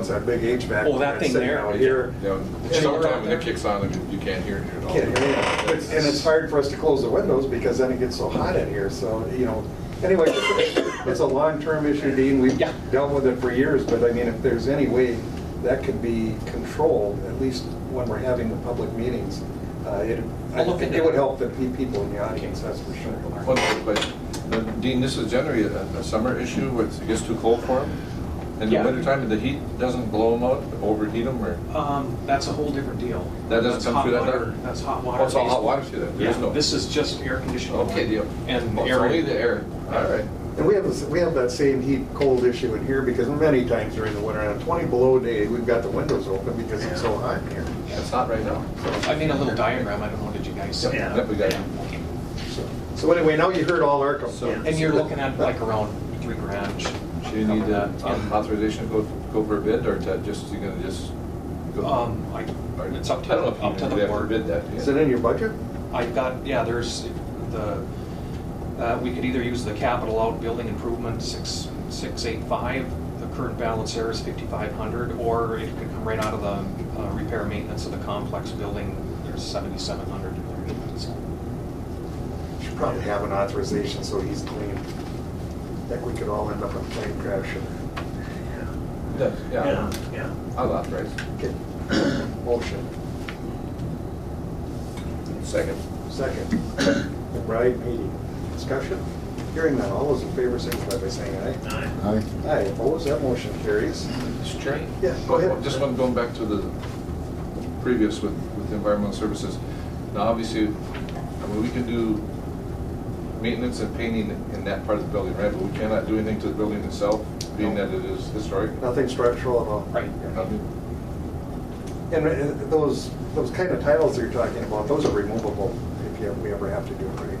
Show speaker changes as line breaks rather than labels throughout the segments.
It's that big HVAC.
Oh, that thing
sitting
there.
Out here.
You know,
Yeah.
summertime when it kicks on, I mean, you can't hear it at all.
Can't hear it. But- And it's hard for us to close the windows because then it gets so hot in here, so, you know. Anyway, it's a long-term issue, Dean. We've
Yeah.
dealt with it for years, but I mean, if there's any way that could be controlled, at least when we're having the public meetings, uh, it, I
I'll look
think
into
it would
it.
help the pe- people in the audience, that's for sure.
Well, But uh, Dean, this is generally a a summer issue, where it gets too cold for them. In the
Yeah.
wintertime, the heat doesn't blow them out, overheat them, or?
Um, that's a whole different deal.
That doesn't
That's
come
hot
through that
water-
duct?
That's hot water.
Oh, it's all hot
based-
water through that? There
Yeah,
is no?
this is just air conditioning.
Okay, deal.
And
Oh, it's
air-
Only the air, all right.
And we have, this- we have that same heat, cold issue in here because many times during the winter, on a 20 below day, we've got the windows open because it's so hot in here.
It's hot right now.
I made a little diagram, I don't know, did you guys? see?
Yep, we got it.
So- So anyway, now you heard all our complaints.
And you're looking at like around three grand.
Do you need uh,
that.
um, authorization to go, go for a bid, or to just, you're gonna just go?
Um, I, it's up
I
to,
don't know if you
up to
even
the
have to
board.
bid that, do you?
Is it in your budget?
I've got, yeah, there's the, uh, we could either use the capital out building improvement six, six eight five. The current balance there is fifty-five hundred, or it could come right out of the uh, repair maintenance of the complex building. There's seventy-seven hundred in there. So,
Should probably have an authorization so he's clean. That we could all end up in a plane crash.
Yeah, Yeah,
yeah.
I'll authorize.
Okay. Motion,
Second.
second. Right, meeting, discussion. Hearing none, all those in favor signify by saying aye.
Aye.
Aye, opposed, that motion carries.
Mr. Chair?
Yeah, go ahead.
Just one, going back to the previous with, with environmental services. Now, obviously, I mean, we can do maintenance and painting in that part of the building, right? But we cannot do anything to the building itself, being
No.
that it is historic.
Nothing structural at all.
Right.
Nothing.
And uh, those, those kind of tiles that you're talking about, those are removable if you, we ever have to do it, right?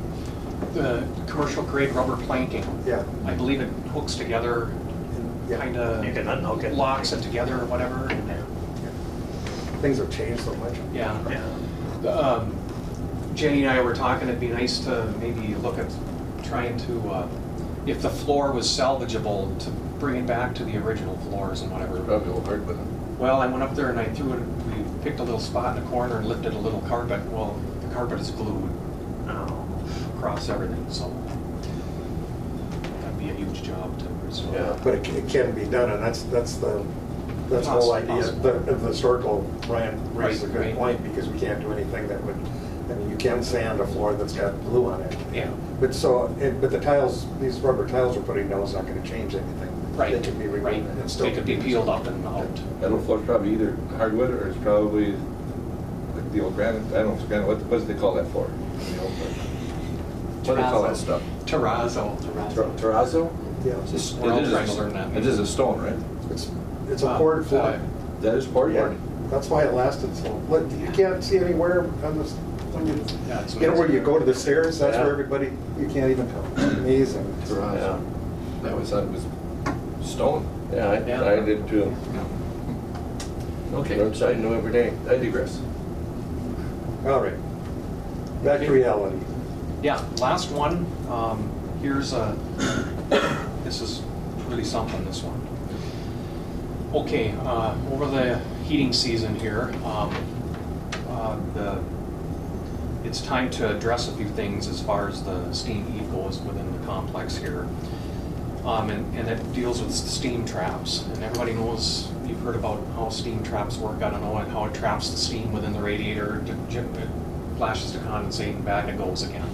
The commercial grade rubber planking.
Yeah.
I believe it hooks together,
Yeah.
kind
You can
of
unhook it.
locks it together or whatever.
Things have changed so much.
Yeah.
Yeah.
Um, Jenny and I were talking, it'd be nice to maybe look at trying to, uh, if the floor was salvageable, to bring it back to the original floors and whatever.
Probably a little hard, but
Well, I went up there and I threw it, we picked a little spot in the corner and lifted a little carpet. Well, the carpet is glued
Oh,
across everything, so that'd be a huge job to restore.
Yeah.
But it ca- it can be done, and that's, that's the, that's the whole idea of the of the historical, Ryan raises a
Right,
good
right.
point, because we can't do anything that would, I mean, you can sand a floor that's got glue on it.
Yeah.
But so, it- but the tiles, these rubber tiles we're putting down is not gonna change anything.
Right,
They can be removed
right.
and still.
They could be peeled up and out.
metal floor's probably either hardwood or it's probably like the old granite, I don't know, granite, what, what do they call that floor? The old, uh, What do they call that stuff?
Terrazzo.
Ter- Terrazzo?
Yeah,
It's just-
We're all
it is a-
trying to learn that.
It is a stone, right?
it's, it's a poured
Uh,
floor.
That is part
Yeah, That's why it lasted so, but you can't see anywhere on this, when you,
Yeah, it's
you know, where you go to the stairs, that's where
Yeah.
everybody, you can't even tell. It's Amazing.
Yeah. That was, that was stone.
Yeah,
Yeah.
I, I did too.
Okay,
Learn something new every day.
I digress.
All right. Back to reality.
Yeah, last one, um, here's a, this is really something, this one. Okay, uh, over the heating season here, um, uh, the, it's time to address a few things as far as the steam heat goes within the complex here. Um, and, and it deals with steam traps, and everybody knows, you've heard about how steam traps work, I don't know, and how it traps the steam within the radiator, it gen- it flashes to condensate and back it goes again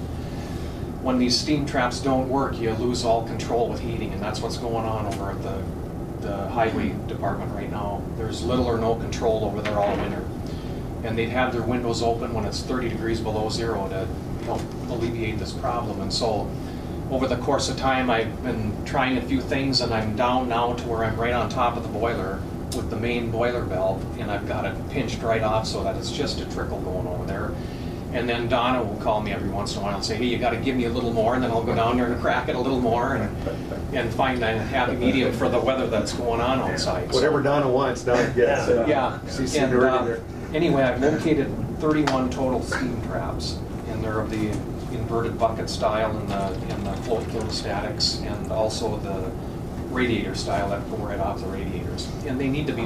when these steam traps don't work, you lose all control with heating, and that's what's going on over at the, the highway department right now. There's little or no control over there all winter. And they'd have their windows open when it's thirty degrees below zero to help alleviate this problem. And so, over the course of time, I've been trying a few things, and I'm down now to where I'm right on top of the boiler with the main boiler valve, and I've got it pinched right off so that it's just a trickle going over there. And then Donna will call me every once in a while and say, hey, you gotta give me a little more, and then I'll go down there and crack it a little more and, and find a happy medium for the weather that's going on outside. So-
Whatever Donna wants, Donna gets.
yeah.
She's
and,
seen
uh,
her
Anyway, I've located 31 total steam traps, and they're of the inverted bucket style and the, and the float thermostatics, and also the radiator style that go right off the radiators. And they need to be